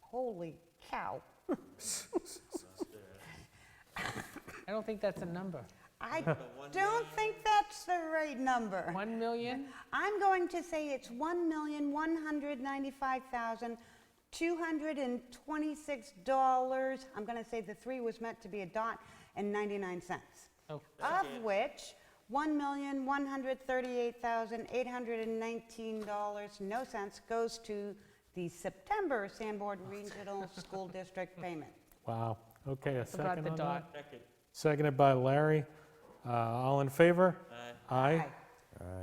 Holy cow. I don't think that's a number. I don't think that's the right number. 1 million? I'm going to say it's one million, one hundred ninety-five thousand, two hundred and twenty-six dollars. I'm gonna say the three was meant to be a dot and ninety-nine cents. Oh. Of which, one million, one hundred thirty-eight thousand, eight hundred and nineteen dollars, no cents, goes to the September Sanborn Regional School District payment. Wow, okay, a Forgot second the on that? dot. Second. Seconded by Larry. Uh, All in favor? Aye. Aye.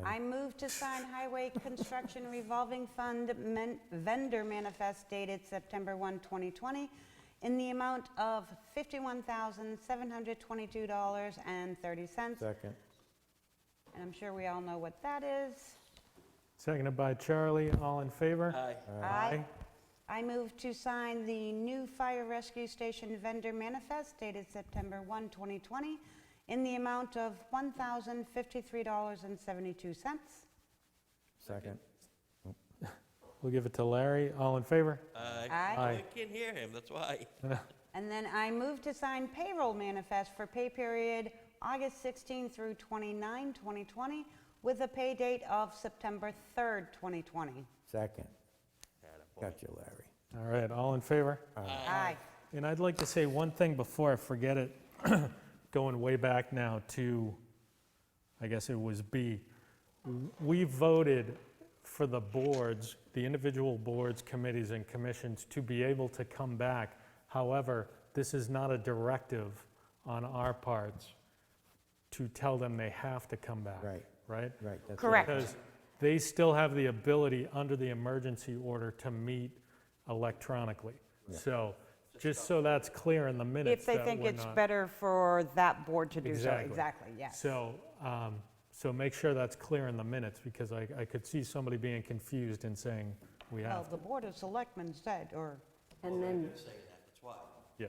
I move to sign Highway Construction Revolving Fund men- vendor manifest dated September 1, 2020, in the amount of $51,722.30. And Second. I'm sure we all know what that is. Seconded by Charlie, all in favor? Aye. Aye. I move to sign the new fire rescue station vendor manifest dated September 1, 2020, in the amount of $1,053.72. Second. We'll give it to Larry, all in favor? Aye. Uh, I Aye. can't hear him, that's why. And then I move to sign payroll manifest for pay period August 16 through 29, 2020, with a pay date of September 3rd, 2020. Second. Got you, Larry. All right, all in favor? Aye. And I'd like to say one thing before I forget it, going way back now to, I guess it was B. We voted for the boards, the individual boards, committees, and commissions to be able to come back. However, this is not a directive on our parts to tell them they have to come back. Right. Right? Right. that's it. Correct. Because they still have the ability, under the emergency order, to meet electronically. So, just so that's clear in the minutes. If they that think we're it's not- better for that board to do so. Exactly. Exactly, yes. So, um, so make sure that's clear in the minutes, because I, I could see somebody being confused and saying, we Well, have, the Board of Selectmen said, or, And then, yeah.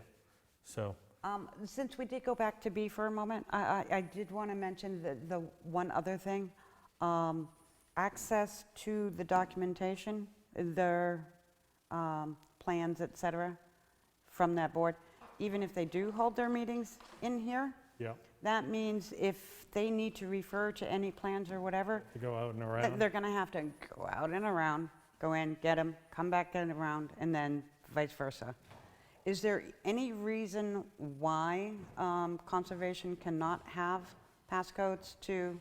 So, um, since we did go back to B for a moment, I, I- I did want to mention the, the one other thing. Um, Access to the documentation, their um, plans, et cetera, from that board. Even if they do hold their meetings in here, yeah, that means if they need to refer to any plans or whatever, to go out and th- around. they're going to have to go out and around, go in, get them, come back in around, and then vice versa. Is there any reason why um, conservation cannot have passcodes to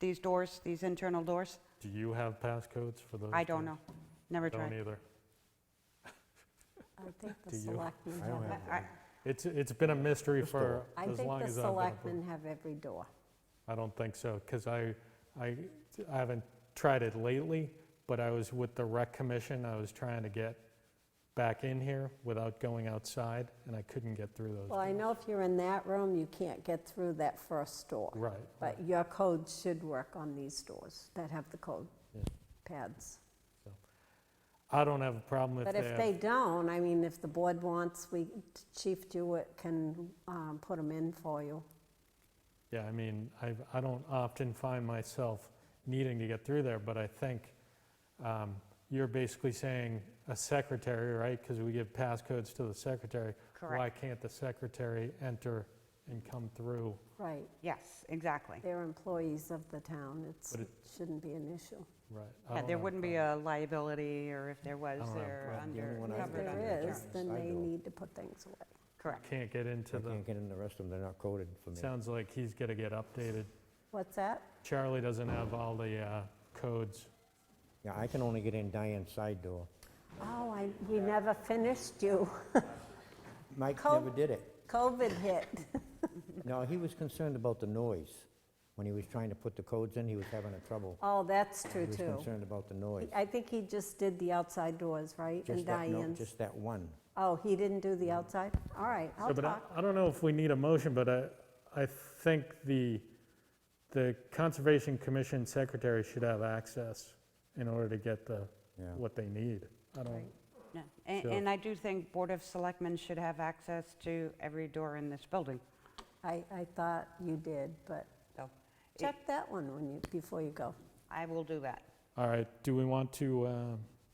these doors, these internal doors? Do you have passcodes for those? I don't know. things? Never Don't tried. either. I think the Do you? selectmen I don't have, have I- It's, it's been a mystery for I as think long the as I've been. a board. selectmen have every door. I don't think so, because I, I, I haven't tried it lately, but I was with the rec commission, I was trying to get back in here without going outside, and I couldn't get through those. Well, I know if you're in that room, you can't get through that first door. Right, But your code should work on these doors that have the code Yeah. pads. I don't have a problem if But they if have- they don't, I mean, if the board wants, we, Chief Jewett can um, put them in for you. Yeah, I mean, I, I don't often find myself needing to get through there, but I think um, you're basically saying a secretary, right? Because we give passcodes to the secretary. Why Correct. can't the secretary enter and come through? Right, Yes, exactly. they're employees of the town, it's, But it it- shouldn't be an issue. Right. I Yeah, don't There have a wouldn't be a liability, or if there was, I don't have a they're problem. The only under, one I If covered would- under. there the Yeah. is, terms. then I they do. problem. need to put things away. Correct. Can't get into I the, can't get in the rest of them, they're not coded for me. sounds like he's gonna get updated. What's that? Charlie doesn't have all the uh, codes. Yeah, I can only get in Diane's side door. Oh, I, we never finished you. Mike Code- never did it. COVID hit. No, he was concerned about the noise. When he was trying to put the codes in, he was having a trouble. Oh, that's He true, was too. concerned about the noise. I think he just did the outside doors, right? And Just that no- Diane's. Just that one. Oh, he didn't do the outside? All right, I'll So, but I- talk. I don't know if we need a motion, but I, I think the, the Conservation Commission secretary should have access in order to get the, Yeah. what they need. I don't, No, And Sure. and I do think Board of Selectmen should have access to every door in this building. I, I thought you did, but So it- check that one when you, before you go. I will do that. all right, do we want to um,